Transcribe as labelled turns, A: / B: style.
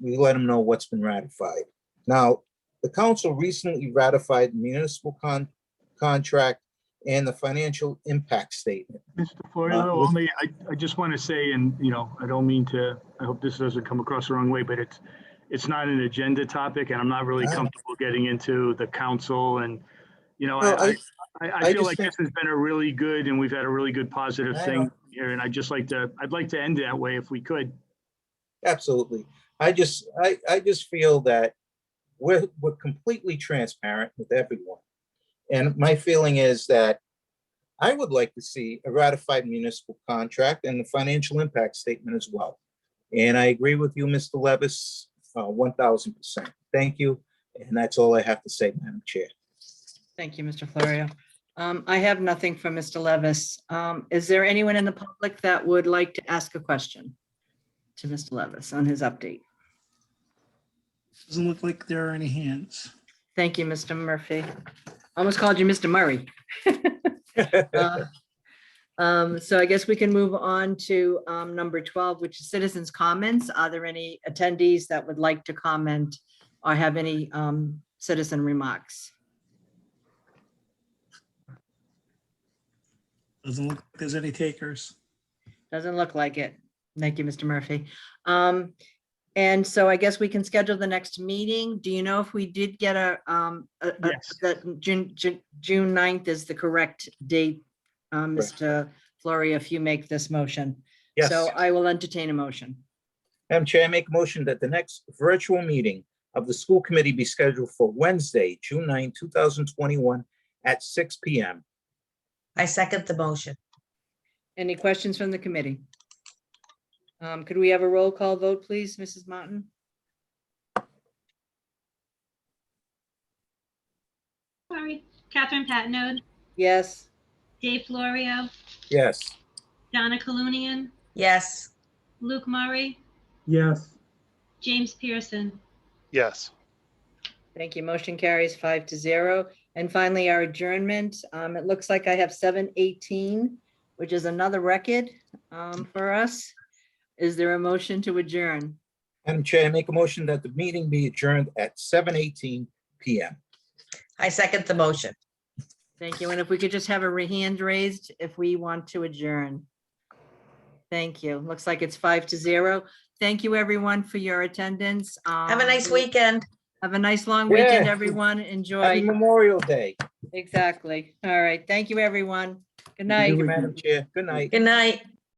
A: we let them know what's been ratified. Now, the council recently ratified the municipal con- contract and the financial impact statement.
B: Mr.
A: Uh,
B: Florio,
A: with-
B: only, I, I just want to say, and, you know, I don't mean to, I hope this doesn't come across the wrong way, but it's, it's not an agenda topic, and I'm not really
A: Ah.
B: comfortable getting into the council and, you know,
A: Well,
B: I, I,
A: I-
B: I
A: I
B: I feel
A: just
B: like
A: think-
B: this has been a really good, and we've had a really good positive
A: I
B: thing
A: know.
B: here, and I'd just like to, I'd like to end that way if we could.
A: Absolutely. I just, I, I just feel that we're, we're completely transparent with everyone. And my feeling is that I would like to see a ratified municipal contract and the financial impact statement as well. And I agree with you, Mr. Levis, uh, one thousand percent. Thank you. And that's all I have to say, Madam Chair.
C: Thank you, Mr. Florio. Um, I have nothing for Mr. Levis. Um, Is there anyone in the public that would like to ask a question to Mr. Levis on his update?
D: Doesn't look like there are any hands.
C: Thank you, Mr. Murphy. Almost called you Mr. Murray. Uh, um, So I guess we can move on to um, number 12, which is citizens' comments. Are there any attendees that would like to comment or have any um, citizen remarks?
D: Doesn't look like there's any takers.
C: Doesn't look like it. Thank you, Mr. Murphy. Um, and so I guess we can schedule the next meeting. Do you know if we did get a, um, a- a-
B: Yes.
C: that June, Ju- June 9th is the correct date? Um,
A: Correct.
C: Mr. Flory, if you make this motion.
A: Yes.
C: So I will entertain a motion.
A: Madam Chair, I make a motion that the next virtual meeting of the school committee be scheduled for Wednesday, June 9, 2021, at six PM.
E: I second the motion.
C: Any questions from the committee? Um, could we have a roll call vote, please, Mrs. Martin?
F: Sorry, Catherine Patnode,
C: Yes,
F: Dave Florio,
A: Yes,
F: Donna Colunian,
E: Yes,
F: Luke Murray,
G: Yes,
F: James Pearson.
H: Yes,
C: thank you. Motion carries five to zero. And finally, our adjournment. Um, it looks like I have seven eighteen, which is another record, um, for us. Is there a motion to adjourn?
A: Madam Chair, I make a motion that the meeting be adjourned at 7:18 PM.
E: I second the motion.
C: Thank you. And if we could just have a ra- hand raised if we want to adjourn. Thank you. Looks like it's five to zero. Thank you, everyone, for your attendance.
E: Have a
C: Um,
E: nice
C: we-
E: weekend.
C: Have a nice long
A: Yeah.
C: weekend, everyone.
A: Happy
C: Enjoy.
A: Memorial Day.
C: Exactly. All right. Thank you, everyone. Good night.
A: Thank you, Madam Chair. Good night.
E: Good night.